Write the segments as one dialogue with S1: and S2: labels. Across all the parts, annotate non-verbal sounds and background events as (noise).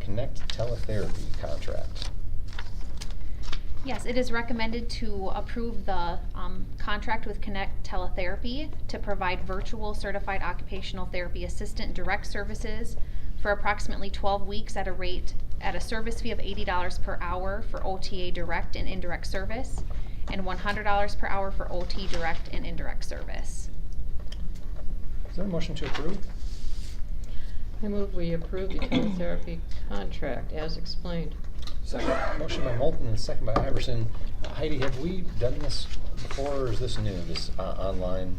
S1: Connect Teletherapy contract.
S2: Yes, it is recommended to approve the um, contract with Connect Teletherapy to provide virtual certified occupational therapy assistant direct services for approximately 12 weeks at a rate, at a service fee of $80 per hour for OTA direct and indirect service, and $100 per hour for OT direct and indirect service.
S1: Is there a motion to approve?
S3: I move we approve the teletherapy contract as explained.
S1: Second. Motion by Moulton and second by Iverson. Uh, Heidi, have we done this before or is this new, this uh, online?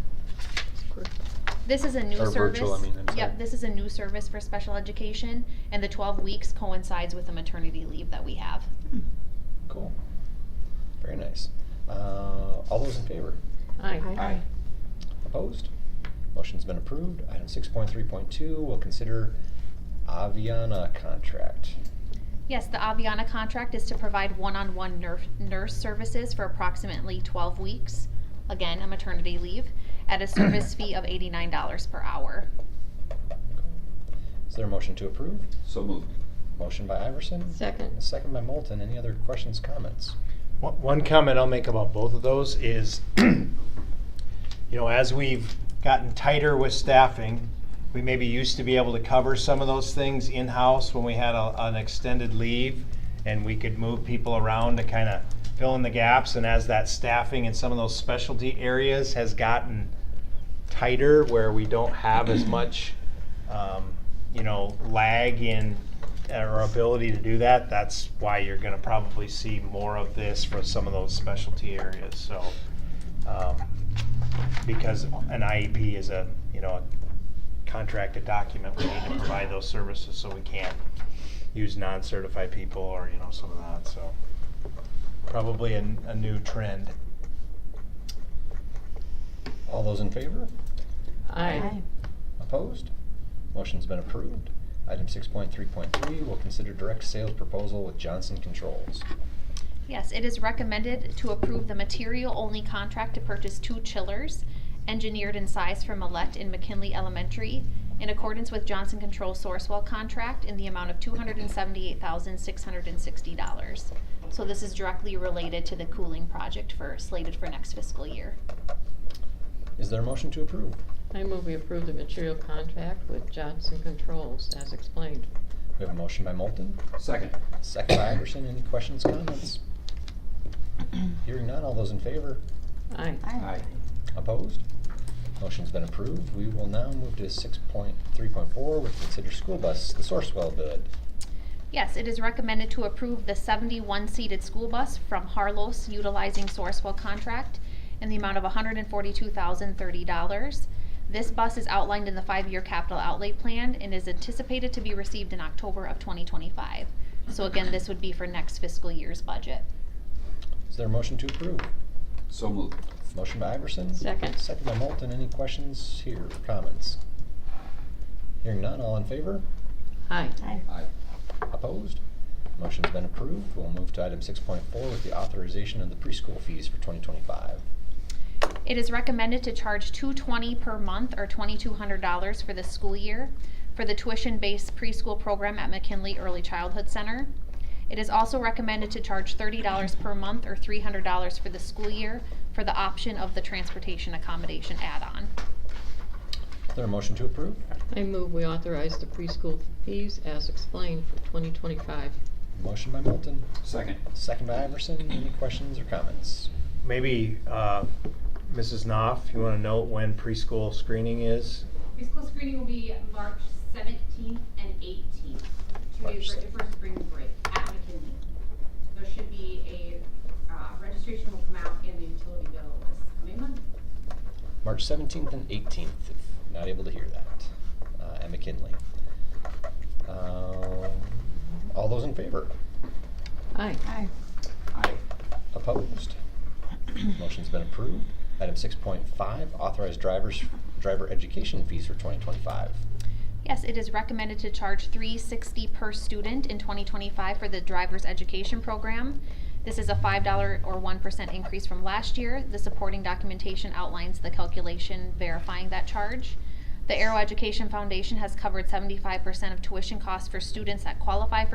S2: This is a new
S1: Or
S2: service.
S1: virtual, I mean, I'm sorry.
S2: Yep, this is a new service for special education, and the 12 weeks coincides with the maternity leave that we have.
S1: Cool. Very nice. Uh, All those in favor?
S3: Aye.
S4: Aye.
S1: Opposed? Motion's been approved. Item 6.3.2, we'll consider Aviana contract.
S2: Yes, the Aviana contract is to provide one-on-one nurse, nurse services for approximately twelve weeks, again, a maternity leave, at a service fee of eighty-nine dollars per hour.
S1: Is there a motion to approve?
S4: So moved.
S1: Motion by Iverson? and a
S3: Second.
S1: Second by Moulton. Any other questions, comments?
S5: One- One comment I'll make about both of those is, (clears throat) you know, as we've gotten tighter with staffing, we maybe used to be able to cover some of those things in-house when we had a- an extended leave, and we could move people around to kind of fill in the gaps, and as that staffing in some of those specialty areas has gotten tighter, where we don't have as much, um, you know, lag in uh, our ability to do that, that's why you're gonna probably see more of this for some of those specialty areas, so. um, Because an IEP is a, you know, a contracted document, we need to provide those services, so we can't use non-certified people or, you know, some of that, so. Probably a, a new trend.
S1: All those in favor?
S3: Aye.
S1: Opposed? Motion's been approved. Item 6.3.3, we'll consider direct sales proposal with Johnson Controls.
S2: Yes, it is recommended to approve the material-only contract to purchase two chillers, engineered in size from Millette and McKinley Elementary, in accordance with Johnson Control Sourcewell contract in the amount of two hundred and seventy-eight thousand, six hundred and sixty dollars. So this is directly related to the cooling project for, slated for next fiscal year.
S1: Is there a motion to approve?
S3: I move we approve the material contract with Johnson Controls as explained.
S1: We have a motion by Moulton,
S4: Second.
S1: second by Iverson. Any questions, comments? Hearing none, all those in favor?
S3: Aye.
S4: Aye.
S1: Opposed? Motion's been approved. We will now move to 6.3.4, which consider school bus, the Sourcewell bid.
S2: Yes, it is recommended to approve the seventy-one seated school bus from Harlos utilizing Sourcewell contract in the amount of hundred and forty-two thousand thirty dollars. This bus is outlined in the five-year capital outlay plan and is anticipated to be received in October of twenty twenty-five. So again, this would be for next fiscal year's budget.
S1: Is there a motion to approve?
S4: So moved.
S1: Motion by Iverson.
S3: Second.
S1: Second by Moulton. Any questions here, comments? Hearing none, all in favor?
S3: Aye.
S4: Aye.
S1: Opposed? Motion's been approved. We'll move to item six point four with the authorization of the preschool fees for twenty twenty-five.
S2: It is recommended to charge two twenty per month or twenty-two hundred dollars for the school year for the tuition-based preschool program at McKinley Early Childhood Center. It is also recommended to charge thirty dollars per month or three hundred dollars for the school year for the option of the transportation accommodation add-on.
S1: Is there a motion to approve?
S3: I move we authorize the preschool fees as explained for 2025.
S1: Motion by Moulton,
S4: Second.
S1: second by Iverson. Any questions or comments?
S5: Maybe, uh, Mrs. Knopf, you want to note when preschool screening is?
S6: Preschool screening will be March seventeenth and eighteenth, two
S1: March
S6: days right
S1: 7th.
S6: before spring break at McKinley. There should be a, uh, registration will come out in the utility bill this coming month.
S1: March seventeenth and eighteenth, if not able to hear that, uh, at McKinley. Um, all those in favor?
S3: Aye.
S4: Aye.
S1: Opposed? Motion's been approved. Item six point five, authorized drivers, driver education fees for twenty twenty-five.
S2: Yes, it is recommended to charge three sixty per student in twenty twenty-five for the driver's education program. This is a five dollar or one percent increase from last year. The supporting documentation outlines the calculation verifying that charge. The Aero Education Foundation has covered seventy-five percent of tuition costs for students that qualify for